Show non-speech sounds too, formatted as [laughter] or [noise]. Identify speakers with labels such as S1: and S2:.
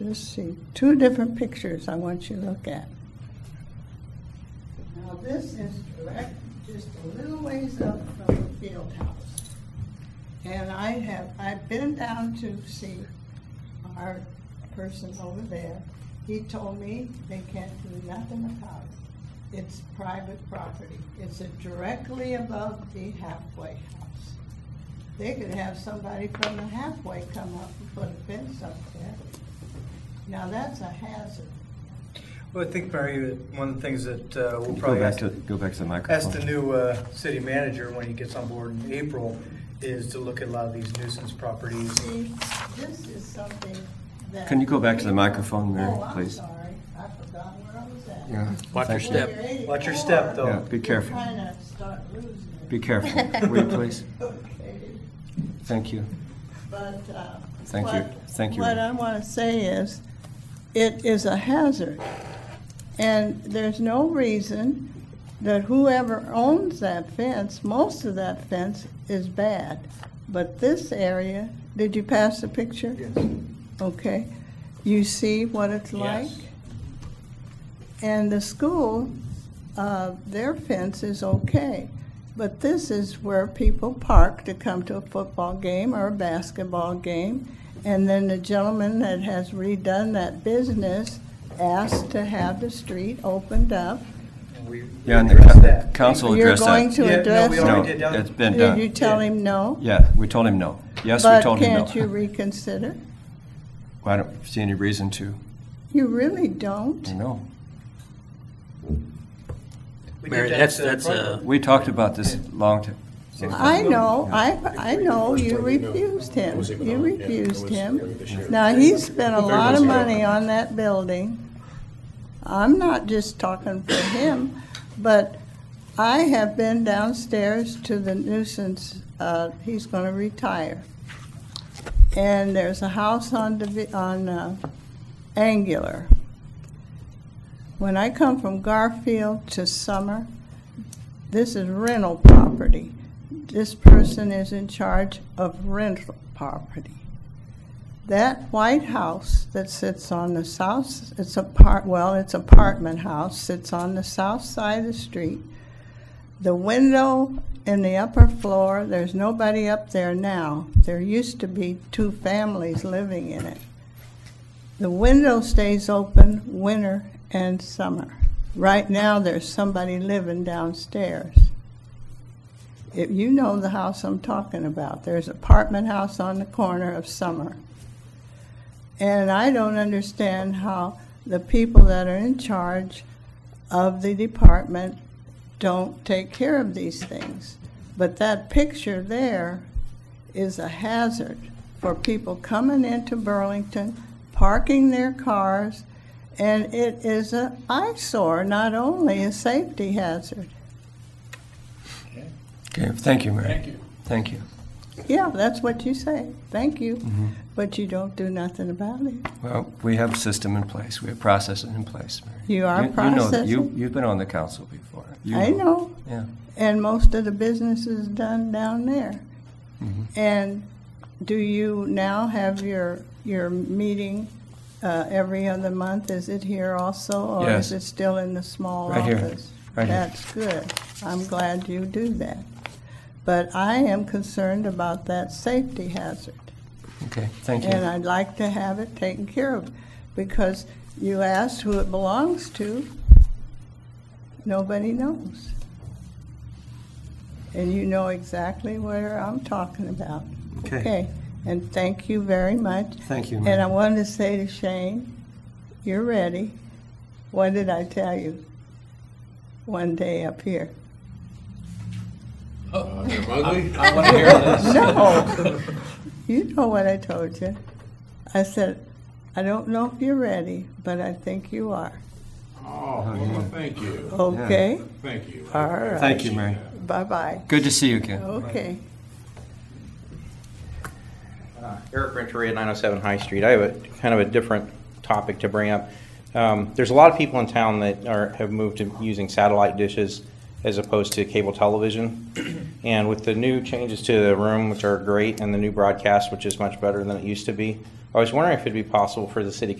S1: let's see, two different pictures I want you to look at. Now, this is direct, just a little ways up from the field house. And I have, I've been down to see our person over there. He told me they can't do nothing about it. It's private property. It's directly above the halfway house. They could have somebody from the halfway come up and put a fence up there. Now, that's a hazard.
S2: Well, I think, Mary, that one of the things that uh, we'll
S3: Go
S2: probably
S3: back
S2: ask,
S3: to, go back to the
S2: ask
S3: microphone.
S2: the new uh, city manager when he gets on board in April is to look at a lot of these nuisance properties.
S1: See, this is something that.
S3: Can you go back to the microphone, Mary,
S1: Oh, I'm
S3: please?
S1: sorry. I forgot where I was at.
S3: Yeah.
S4: Watch your
S3: Thank you.
S4: step.
S1: When you're
S2: Watch your step,
S1: 84,
S2: though.
S3: Yeah, be careful.
S1: You kind of start losing it. [laughs]
S3: Be careful, will you please?
S1: Okay,
S3: Thank you.
S1: but, uh.
S3: Thank you.
S1: what-
S3: Thank you,
S1: What I
S3: Ray.
S1: want to say is, it is a hazard. And there's no reason that whoever owns that fence, most of that fence is bad. But this area, did you pass the picture?
S2: Yes.
S1: Okay, you see what it's like? And the school, uh, their fence is okay, but this is where people park to come to a football game or a basketball game. And then the gentleman that has redone that business asked to have the street opened up.
S2: And we we
S3: Yeah, and the
S2: addressed
S3: co-
S2: that.
S3: council
S1: You're
S3: addressed
S1: going
S3: that.
S1: to
S2: Yeah, no,
S1: address
S2: we
S3: No,
S2: already
S1: it?
S2: did, done.
S3: it's been
S1: Did you
S3: done.
S1: tell him no?
S3: Yeah, we told him no. Yes, we told him no.
S1: But can't you reconsider?
S3: I don't see any reason to,
S1: You really don't?
S3: no.
S2: We did
S4: Mary,
S2: that
S4: that's-
S2: to the
S4: that's,
S2: front
S4: uh,
S2: yard.
S3: We talked about this long time.
S1: I know, I, I know, you refused him, you refused him. Now, he spent a lot of money on that building. I'm not just talking for him, but I have been downstairs to the nuisance, uh, he's gonna retire. And there's a house on, Divi- on, uh, Angular. When I come from Garfield to Summer, this is rental property. This person is in charge of rental property. That White House that sits on the south, it's apart, well, it's apartment house, sits on the south side of the street. The window in the upper floor, there's nobody up there now. There used to be two families living in it. The window stays open winter and summer. Right now, there's somebody living downstairs. If you know the house I'm talking about, there's apartment house on the corner of Summer. And I don't understand how the people that are in charge of the department don't take care of these things. But that picture there is a hazard for people coming into Burlington, parking their cars, and it is an eyesore, not only a safety hazard.
S3: Okay, thank you, Mary. Thank you. Thank you.
S1: Yeah, that's what you say. Thank you. But you don't do nothing about it.
S3: Well, we have a system in place, we have processes in place, Mary.
S1: You are
S3: You know that, you,
S1: processing.
S3: you've been on the council before. You
S1: I know.
S3: Yeah,
S1: and most of the business is done down there.
S3: Mm-hmm.
S1: And do you now have your, your meeting uh, every other month? Is it here also? Or
S3: Yes.
S1: is it still in the small
S3: Right here.
S1: office?
S3: Right here.
S1: That's good. I'm glad you do that. But I am concerned about that safety hazard.
S3: okay, thank you.
S1: And I'd like to have it taken care of, because you asked who it belongs to, nobody knows. And you know exactly where I'm talking about.
S3: Okay.
S1: And thank you very much.
S3: Thank you,
S1: And I
S3: Mary.
S1: wanted to say to Shane, you're ready. What did I tell you? One day up here.
S2: I want to hear this.
S1: No. You know what I told you. I said, I don't know if you're ready, but I think you are.
S5: Oh, well, thank you,
S1: Okay?
S5: thank you.
S1: All right.
S3: Thank you, Mary.
S1: Bye-bye.
S3: Good to see you again.
S1: Oh, Okay.
S6: Eric Renteria, 907 High Street. I have a kind of a different topic to bring up. Um, There's a lot of people in town that are, have moved to using satellite dishes as opposed to cable television. And with the new changes to the room, which are great, and the new broadcast, which is much better than it used to be, I was wondering if it'd be possible for the city